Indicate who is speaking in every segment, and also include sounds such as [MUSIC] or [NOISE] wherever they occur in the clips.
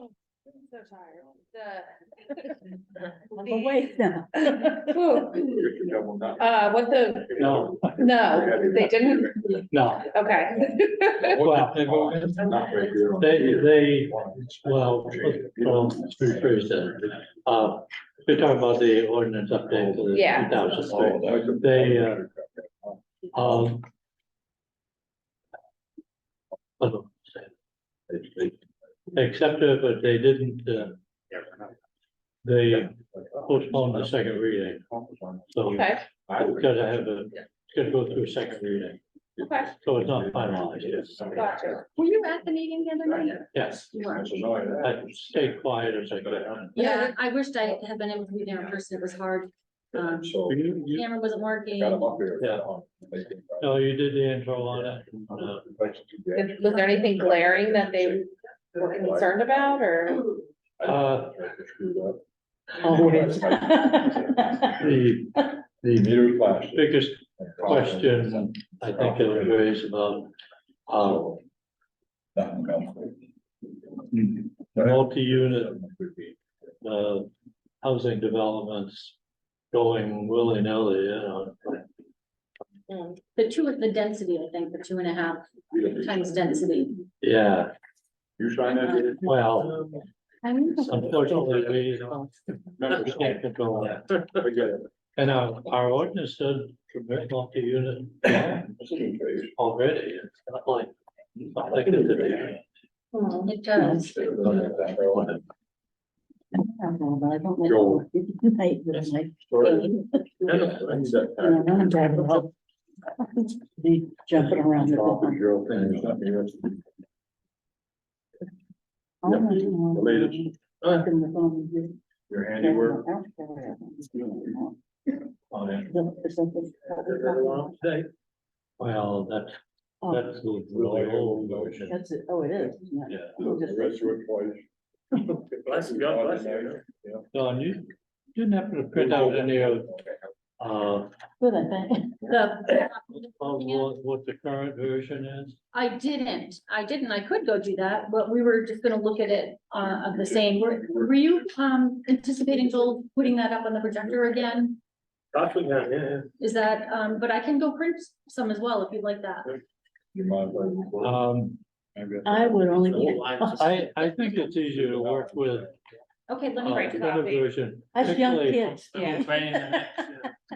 Speaker 1: So tired. The.
Speaker 2: [LAUGHS]
Speaker 3: I'm awake now.
Speaker 4: No.
Speaker 1: Uh, what the,
Speaker 5: No,
Speaker 1: no, they didn't,
Speaker 5: no,
Speaker 1: okay.
Speaker 4: Not right there.
Speaker 5: they, they, well, um, through Thursday, uh, we're talking about the ordinance update for the
Speaker 1: Yeah.
Speaker 5: two
Speaker 4: Oh,
Speaker 5: thousand. They, uh, Um. I don't say it. Except, um, uh, but they didn't, uh, they postponed the second reading, so.
Speaker 1: Okay,
Speaker 5: It's gotta have a, it's gotta go through a second reading,
Speaker 1: okay,
Speaker 5: so it's not finalized, yes,
Speaker 1: gotcha.
Speaker 3: Were you at the meeting the other night?
Speaker 5: yes.
Speaker 3: You were.
Speaker 5: I stayed quiet as I could.
Speaker 3: Yeah, I wished I had been able to be there in person. It was hard. Um,
Speaker 4: So.
Speaker 5: You, you,
Speaker 3: Camera wasn't working.
Speaker 4: Got him up here.
Speaker 5: Yeah. no, you did the intro on it. No.
Speaker 1: Did- Was there anything glaring that they were concerned about or?
Speaker 5: Uh, the, the
Speaker 4: Meter flash.
Speaker 5: biggest question I think it was raised about, uh, multi-unit, uh, housing developments going willy-nilly, you know.
Speaker 3: The two with the density, I think, the two and a half times density.
Speaker 5: Yeah,
Speaker 4: You trying to?
Speaker 5: well,
Speaker 3: I mean,
Speaker 5: unfortunately, we don't, members can't control that. And our, our ordinance did permit multi-unit already, it's not like, it's not like it's a big-
Speaker 1: Hmm,
Speaker 3: It does.
Speaker 2: I don't know, but I don't like.
Speaker 4: Joel.
Speaker 2: I don't like pain.
Speaker 4: Joel.
Speaker 2: And I'm driving home. They jumping around. the phone. I don't know.
Speaker 4: Related.
Speaker 2: Jumping the phone.
Speaker 4: Your
Speaker 2: I
Speaker 4: handiwork.
Speaker 2: don't care.
Speaker 5: oh,
Speaker 2: It's like it's-
Speaker 5: Well, that's,
Speaker 2: Oh,
Speaker 5: that's the really old version,
Speaker 2: That's it, oh, it is. isn't it?
Speaker 5: yeah.
Speaker 4: Bless you, God bless you.
Speaker 5: Don, you didn't happen to print out any of, uh,
Speaker 2: Good, I think.
Speaker 3: The,
Speaker 5: of what, what the current version is?
Speaker 3: I didn't, I didn't, I could go do that, but we were just gonna look at it, uh, of the same. Were, were you, um, anticipating Joel putting that up on the projector again?
Speaker 5: Actually, yeah,
Speaker 3: Is that, um, but I can go print some as well if you'd like that.
Speaker 4: You mind if I-
Speaker 5: Um,
Speaker 2: I would only. [LAUGHS]
Speaker 5: I, I think it's easier to work with.
Speaker 3: Okay, let
Speaker 5: uh,
Speaker 3: me
Speaker 1: Right.
Speaker 3: write
Speaker 5: the current
Speaker 1: copy.
Speaker 5: version,
Speaker 2: Us young
Speaker 5: particularly-
Speaker 2: kids, yeah.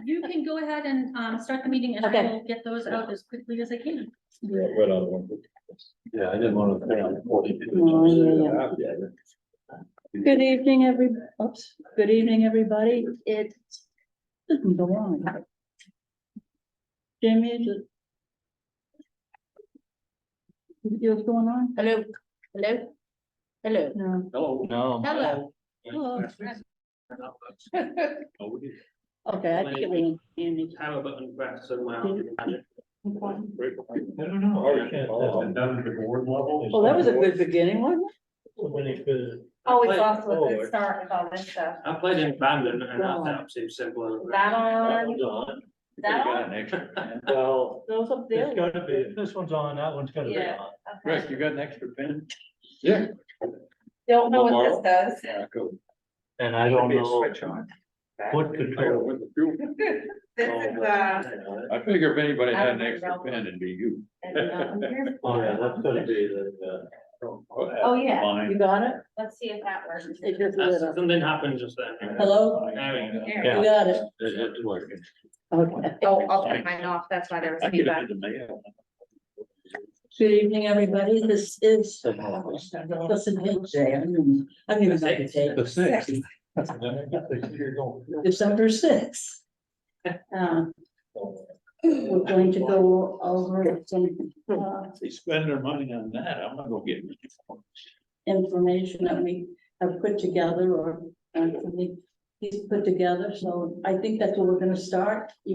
Speaker 3: You can go ahead and, um, start the meeting and I
Speaker 2: Okay.
Speaker 3: will get those out as quickly as I can.
Speaker 4: Yeah, right on the one.
Speaker 5: Yeah, I didn't want to. print out
Speaker 2: Oh,
Speaker 5: forty-two.
Speaker 2: yeah, yeah. Good evening, every, oops, good evening, everybody. It doesn't go on. Jamie, is it? You what's going on?
Speaker 1: Hello, hello, hello.
Speaker 2: No.
Speaker 5: No.
Speaker 1: Hello.
Speaker 2: Hello.
Speaker 4: Oh,
Speaker 2: Okay, I think it was Andy.
Speaker 6: Power button press and my. I
Speaker 2: Oh,
Speaker 5: I don't know. I can't- that's been
Speaker 4: done at the board level.
Speaker 2: Well, that was a good beginning, wasn't
Speaker 5: When it could-
Speaker 1: Always off to Oh, a
Speaker 5: Oh,
Speaker 1: good start with all this stuff.
Speaker 6: played in Bandon and that sounds seems simple.
Speaker 1: That on,
Speaker 5: Well,
Speaker 1: that on,
Speaker 2: it? Those up there.
Speaker 5: it's gotta be, if this one's on, that one's gotta be
Speaker 1: Yeah.
Speaker 5: on.
Speaker 1: okay.
Speaker 5: you got an extra pen?
Speaker 1: Don't know what this does.
Speaker 5: And I don't know what control.
Speaker 1: This
Speaker 5: Oh,
Speaker 1: is, uh.
Speaker 4: I figure if anybody
Speaker 1: had an extra pen,
Speaker 4: it'd be you.
Speaker 1: and, um, here's-
Speaker 5: Oh, yeah, that's gotta be the, uh,
Speaker 1: Oh, yeah,
Speaker 2: You got it?
Speaker 1: let's see if that works.
Speaker 2: It just lit up.
Speaker 6: Something happened just then.
Speaker 2: Hello?
Speaker 6: There we go.
Speaker 1: There.
Speaker 5: Yeah.
Speaker 2: You got it?
Speaker 5: the, it- it's working.
Speaker 2: Okay.
Speaker 1: Oh, I'll turn mine off, that's why there was feedback.
Speaker 2: Good evening, everybody. This is.
Speaker 5: Somehow.
Speaker 2: Listen, hey, Jay, I'm, gonna- I'm even like to take.
Speaker 5: The six. [LAUGHS]
Speaker 2: December sixth. Um, we're going to go over some uh,
Speaker 5: They spend their money on that, I'm not gonna get.
Speaker 2: information that we have put together or, uh, he's put together, so I think that's where we're gonna start. You